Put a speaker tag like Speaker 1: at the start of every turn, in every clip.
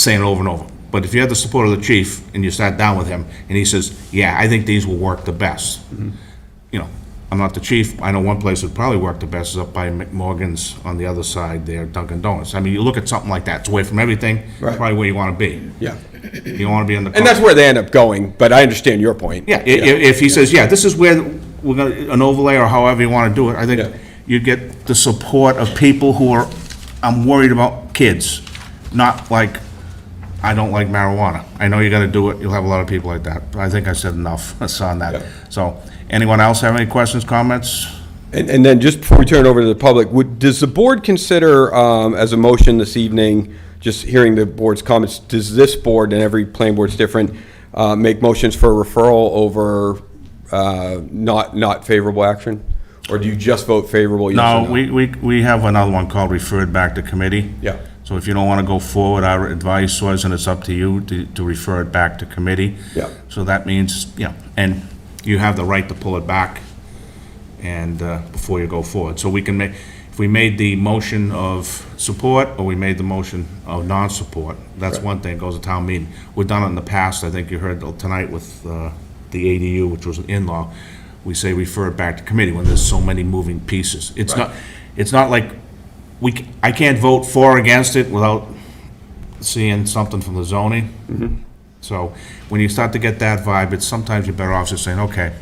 Speaker 1: saying over and over. But if you have the support of the chief and you sat down with him and he says, yeah, I think these will work the best.
Speaker 2: Mm-hmm.
Speaker 1: You know, I'm not the chief. I know one place that probably worked the best is up by McMorgan's on the other side there, Dunkin' Donuts. I mean, you look at something like that, it's away from everything, it's
Speaker 2: Right.
Speaker 1: probably where you want to be.
Speaker 2: Yeah.
Speaker 1: You don't want to be in the.
Speaker 2: And that's where they end up going, but I understand your point.
Speaker 1: Yeah, i- i- if he says, yeah, this is where we're gonna, an overlay or however you wanna do it, I think
Speaker 2: Yeah.
Speaker 1: you get the support of people who are, I'm worried about kids, not like, I don't like marijuana. I know you gotta do it, you'll have a lot of people like that, but I think I said enough on
Speaker 2: Yeah.
Speaker 1: that. So, anyone else have any questions, comments?
Speaker 2: And, and then just before we turn it over to the public, would, does the board consider, um, as a motion this evening, just hearing the board's comments, does this board, and every planning board's different, uh, make motions for referral over, uh, not, not favorable action? Or do you just vote favorable? yes or
Speaker 1: No, we, we, we have another one called referred back to committee.
Speaker 2: Yeah.
Speaker 1: So if you don't want to go forward, our advice was, and it's up to you, to, to refer it back to committee.
Speaker 2: Yeah.
Speaker 1: So that means, you know, and you have the right to pull it back and, uh, before you go forward. So we can make, if we made the motion of support, or we made the motion of non-support, that's one thing, goes to town meeting. We've done it in the past, I think you heard tonight with, uh, the ADU, which was an in-law, we say refer it back to committee when there's so many moving pieces. It's not, it's not like, we, c- I can't vote for or against it without seeing something from the zoning. So when you start to get that vibe, it's sometimes you're better off just saying, okay,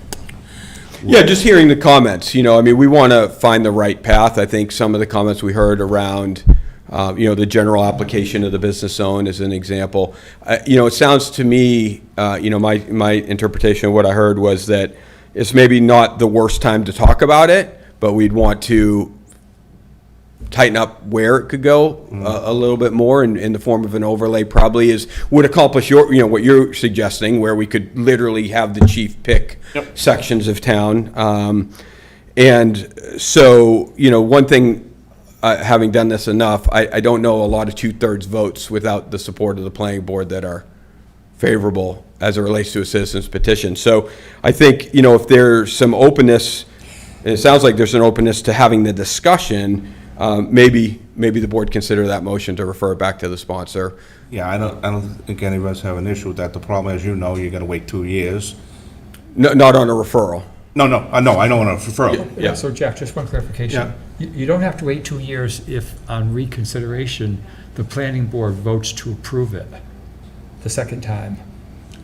Speaker 2: Yeah, just hearing the comments, you know, I mean, we want to find the right path. I think some of the comments we heard around, uh, you know, the general application of the business zone is an example. Uh, You know, it sounds to me, uh, you know, my, my interpretation of what I heard was that it's maybe not the worst time to talk about it, but we'd want to tighten up where it could go uh, a, a little bit more in, in the form of an overlay probably is, would accomplish your, you know, what you're suggesting, where we could literally have the chief pick sections of town. Um, and so, you know, one thing, uh, having done this enough, I, I don't know a lot of two-thirds votes without the support of the planning board that are favorable as it relates to a citizen's petition. So I think, you know, if there's some openness, and it sounds like there's an openness to having the discussion, um, maybe, maybe the board consider that motion to refer it back to the sponsor.
Speaker 1: yeah, I don't, I don't think any of us have an issue with that. The problem, as you know, you're gonna wait two years.
Speaker 2: No, not on a referral.
Speaker 1: No, no, uh, no, I don't want to refer.
Speaker 2: Yeah.
Speaker 3: So Jack, just one
Speaker 1: Yeah.
Speaker 3: clarification. You you don't have to wait two years if on reconsideration, the planning board votes to approve it the second time.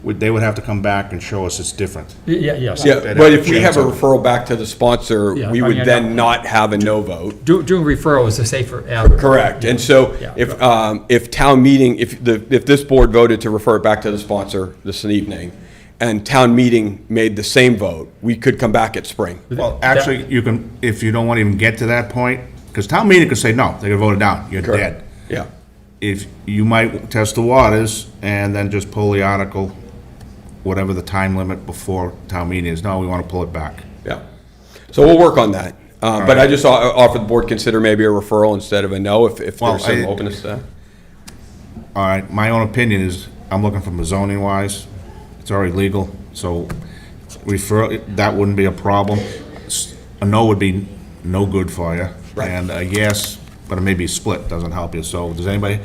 Speaker 1: Would- They would have to come back and show us it's different.
Speaker 3: Y- Yeah, yes.
Speaker 2: Yeah, but if we have a referral back to the sponsor,
Speaker 3: Yeah,
Speaker 2: we
Speaker 3: I
Speaker 2: would
Speaker 3: mean, I
Speaker 2: then
Speaker 3: don't-
Speaker 2: not have a no vote.
Speaker 3: Do- Doing referral is a safer avenue.
Speaker 2: Correct, and so
Speaker 3: Yeah.
Speaker 2: if, um, if town meeting, if the, if this board voted to refer it back to the sponsor this evening, and town meeting made the same vote, we could come back at spring.
Speaker 1: Well, actually, you can, if you don't want to even get to that point, because town meeting could say, no, they're gonna vote it down, you're dead.
Speaker 2: Yeah,
Speaker 1: If, you might test the waters and then just pull the article, whatever the time limit before town meeting is, no, we want to pull it back.
Speaker 2: yeah. So we'll work on that. Uh, But I just o- offer the board consider maybe a referral instead of a no, if, if
Speaker 1: Well,
Speaker 2: there's some
Speaker 1: I-
Speaker 2: openness to that.
Speaker 1: All right, my own opinion is, I'm looking from a zoning wise, it's already legal, so refer, that wouldn't be a problem. S- A no would be no good for you.
Speaker 2: Right.
Speaker 1: And a yes, but it may be split, doesn't help you, so does anybody,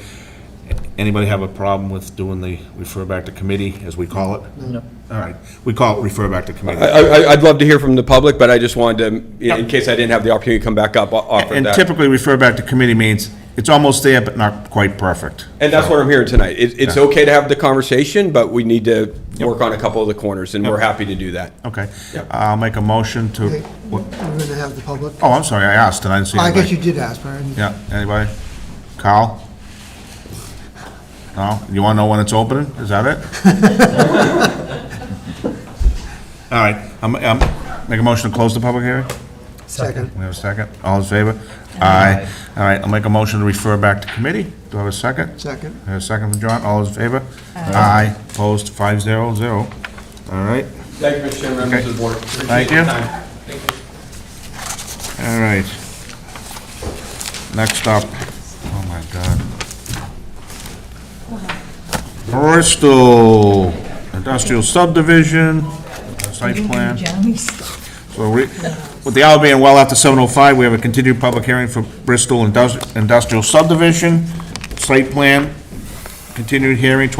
Speaker 1: anybody have a problem with doing the refer back to committee, as we call it? No. All right, we call it refer back to committee.
Speaker 2: I, I, I'd love to hear from the public, but I just wanted to, in case I didn't have the opportunity to come back up, o- offer
Speaker 1: And
Speaker 2: that.
Speaker 1: typically refer back to committee means, it's almost there, but not quite perfect.
Speaker 2: And that's what I'm hearing tonight. It, it's okay to have the conversation, but we need to work on a couple of the corners, and we're happy to do that.
Speaker 1: Okay,
Speaker 2: Yep.
Speaker 1: I'll make a motion to,
Speaker 4: Okay,
Speaker 1: what-
Speaker 4: We're going to have the public.
Speaker 1: oh, I'm sorry, I asked, and I didn't see
Speaker 4: I
Speaker 1: anybody.
Speaker 4: guess you did ask, right?
Speaker 1: Yeah, anybody? Carl? No? You want to know when it's opening? Is that it? All right, I'm, I'm, make a motion to close the public hearing?
Speaker 4: Second.
Speaker 1: We have a second? All in favor? Aye. All right, I'll make a motion to refer back to committee. Do I have a second?
Speaker 4: Second.
Speaker 1: I have A second from John, all in favor? Aye. Opposed, five zero zero. All right,
Speaker 2: Thank you, Mr. Chairman, members of the board.
Speaker 1: Thank you. all right. Next up, oh my God. Bristol Industrial Subdivision, site plan. So we, with the hour being well after seven oh five, we have a continued public hearing for Bristol Indus- Industrial Subdivision, site plan, Continued hearing,